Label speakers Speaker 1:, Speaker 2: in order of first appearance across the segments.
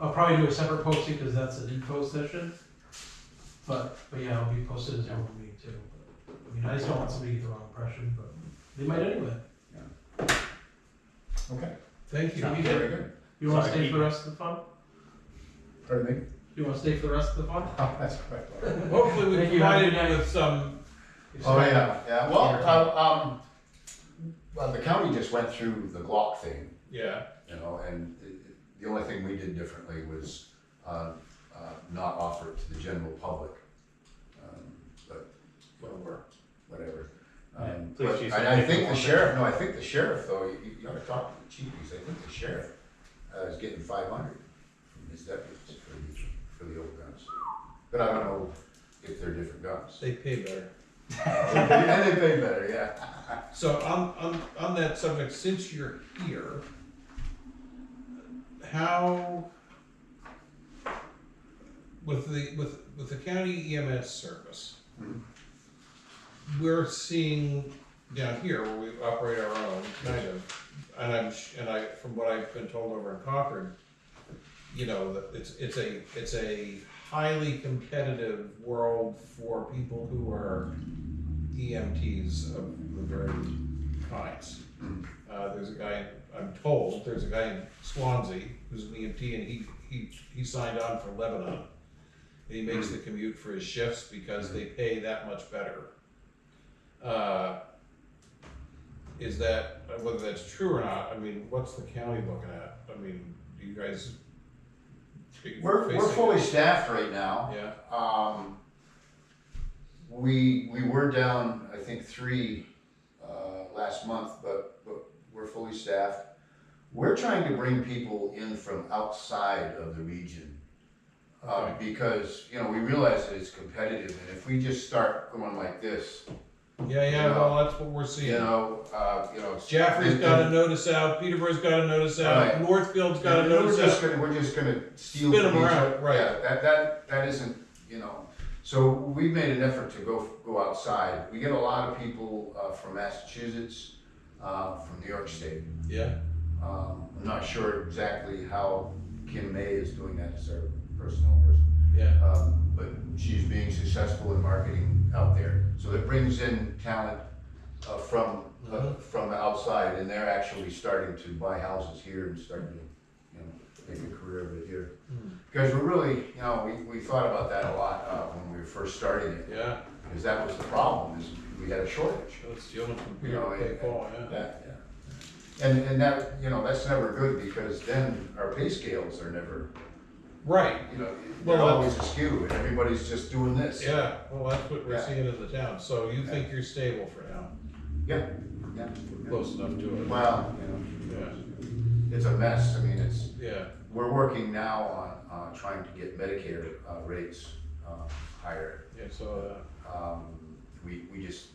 Speaker 1: I'll probably do a separate posting because that's an info session. But, but yeah, it'll be posted as open meeting too. I mean, I just don't want somebody to get the wrong impression, but they might anyway.
Speaker 2: Okay.
Speaker 1: Thank you.
Speaker 2: Sounds very good.
Speaker 1: You wanna
Speaker 2: Sorry,
Speaker 1: stay for
Speaker 2: Pete.
Speaker 1: the rest of the fun?
Speaker 2: Pardon me?
Speaker 1: You wanna stay for the rest of the fun?
Speaker 2: Oh, that's correct.
Speaker 3: Hopefully we
Speaker 1: Thank you.
Speaker 3: provided you with some.
Speaker 2: Oh, yeah, yeah, well, uh, um, well, the county just went through the Glock thing,
Speaker 3: Yeah,
Speaker 2: you know, and it- it- the only thing we did differently was, uh, uh, not offer it to the general public. Um, But, well, we're, whatever. Um,
Speaker 3: Yeah, please
Speaker 2: but-
Speaker 3: use
Speaker 2: And
Speaker 3: that
Speaker 2: I
Speaker 3: paper
Speaker 2: think the
Speaker 3: one.
Speaker 2: sheriff, no, I think the sheriff, though, you, you ought to talk to the chief, because I think the sheriff, uh, is getting five hundred from his deputies for the, for the old guns. But I don't know if they're different guns.
Speaker 3: they pay better.
Speaker 2: And they pay better, yeah.
Speaker 3: So on, on, on that subject, since you're here, how, with the, with, with the county EMS service,
Speaker 2: Mhm.
Speaker 3: we're seeing down here where we operate our own, kind of, and I'm, sh- and I, from what I've been told over in Concord, you know, that it's, it's a, it's a highly competitive world for people who are EMTs E of the very kinds. Uh, there's a guy, I'm told, there's a guy in Swansea who's an EMT and he, he, he signed on for Lebanon. And he makes the commute for his shifts because they pay that much better. Uh, is that, whether that's true or not, I mean, what's the county looking at? I mean, do you guys? are you
Speaker 2: We're, we're
Speaker 3: facing-
Speaker 2: fully staffed right now.
Speaker 3: Yeah,
Speaker 2: Um, we, we were down, I think, three, uh, last month, but, but we're fully staffed. We're trying to bring people in from outside of the region. Uh, because, you know, we realize that it's competitive and if we just start going like this,
Speaker 3: yeah, yeah, well, that's what we're seeing.
Speaker 2: you know, uh, you know.
Speaker 3: Jaffrey's
Speaker 2: then-
Speaker 3: got a notice out, Peterborough's got a notice out,
Speaker 2: Right.
Speaker 3: Northfield's got a
Speaker 2: Yeah,
Speaker 3: notice
Speaker 2: We're just
Speaker 3: out.
Speaker 2: gonna, we're just gonna steal.
Speaker 3: Spin 'em
Speaker 2: from each
Speaker 3: around,
Speaker 2: other.
Speaker 3: right.
Speaker 2: Yeah, that, that, that isn't, you know, so we made an effort to go, go outside. We get a lot of people, uh, from Massachusetts, uh, from New York State.
Speaker 3: Yeah,
Speaker 2: Um, I'm not sure exactly how Kim May is doing that as our personnel person,
Speaker 3: yeah,
Speaker 2: um, but she's being successful in marketing out there. So it brings in talent, uh, from, uh,
Speaker 3: Mhm.
Speaker 2: from the outside, and they're actually starting to buy houses here and starting to, you know, make a career of it here.
Speaker 3: Hmm.
Speaker 2: Because we're really, you know, we, we thought about that a lot uh, when we were first starting it,
Speaker 3: yeah,
Speaker 2: because that was the problem, is we had a shortage.
Speaker 3: that's stealing from
Speaker 2: You know,
Speaker 3: Peter, they
Speaker 2: and-
Speaker 3: call, yeah.
Speaker 2: That, yeah. And, and that, you know, that's never good, because then our pay scales are never,
Speaker 3: Right,
Speaker 2: you know,
Speaker 3: Well,
Speaker 2: they're
Speaker 3: that's-
Speaker 2: always askew, and everybody's just doing this.
Speaker 3: yeah, well, that's what we're
Speaker 2: Yeah.
Speaker 3: seeing in the town, so you think you're stable for now,
Speaker 2: Yeah, yeah.
Speaker 3: close enough to
Speaker 2: Well,
Speaker 3: it,
Speaker 2: you know,
Speaker 3: yeah,
Speaker 2: it's a mess, I mean, it's,
Speaker 3: yeah,
Speaker 2: we're working now on, uh, trying to get Medicare, uh, rates, uh, higher.
Speaker 3: yeah, so, uh,
Speaker 2: Um, we, we just,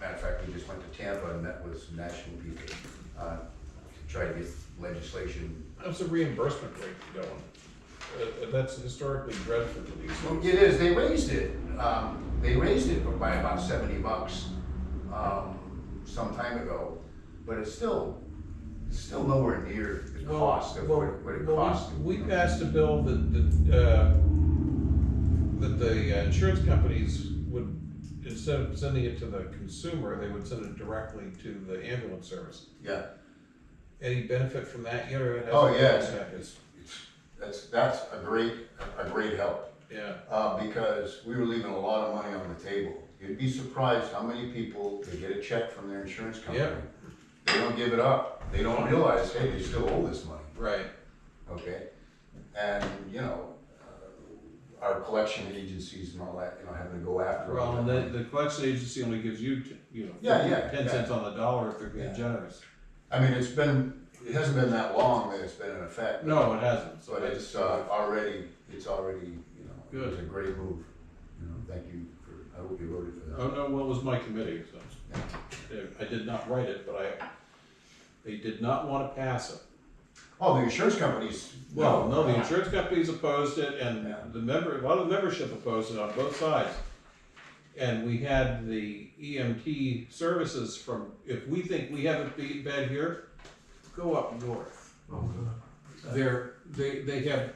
Speaker 2: matter of fact, we just went to Tampa and met with some national people, uh, to try to get legislation.
Speaker 3: how's the reimbursement rate going? Uh, uh, that's historically dreadful for these
Speaker 2: Well,
Speaker 3: things.
Speaker 2: It is, they raised it, um, they raised it by about seventy bucks, um, some time ago, but it's still, it's still nowhere near the
Speaker 3: Well,
Speaker 2: cost of
Speaker 3: well,
Speaker 2: what, what it
Speaker 3: well, we-
Speaker 2: costs.
Speaker 3: We passed a bill that, that, uh, that the uh, insurance companies would, instead of sending it to the consumer, they would send it directly to the ambulance service.
Speaker 2: Yeah,
Speaker 3: Any benefit from that yet, or it hasn't?
Speaker 2: Oh, yeah.
Speaker 3: It's-
Speaker 2: it's, that's, that's a great, a great help.
Speaker 3: Yeah,
Speaker 2: uh, because we were leaving a lot of money on the table. You'd be surprised how many people, they get a check from their insurance company. They don't give it up. They don't realize, hey, they still owe this money,
Speaker 3: right,
Speaker 2: okay? And, you know, uh, our collection agencies and all that, you know, having to go after all
Speaker 4: Well,
Speaker 2: that
Speaker 4: and the,
Speaker 2: money.
Speaker 4: the collection agency only gives you, t- you know,
Speaker 2: Yeah, yeah,
Speaker 4: ten
Speaker 2: yeah.
Speaker 4: cents on the dollar if they're
Speaker 2: Yeah.
Speaker 4: being generous.
Speaker 2: I mean, it's been, it hasn't been that long that it's been in effect.
Speaker 4: No, it hasn't, so
Speaker 2: But
Speaker 4: it's,
Speaker 2: it's, uh, already, it's already, you know,
Speaker 4: Good.
Speaker 2: it's a great move. You know, thank you for, I hope you voted for that.
Speaker 4: oh, no, well, it was my committee, so. They- I did not write it, but I, they did not wanna pass it.
Speaker 2: Oh, the insurance companies.
Speaker 4: Well, no, the insurance companies opposed it and
Speaker 2: Yeah.
Speaker 4: the member, a lot of the membership opposed it on both sides. And we had the EMT services from, if we think we have it be bad here, go up north.
Speaker 1: Oh, good.
Speaker 4: They're, they, they have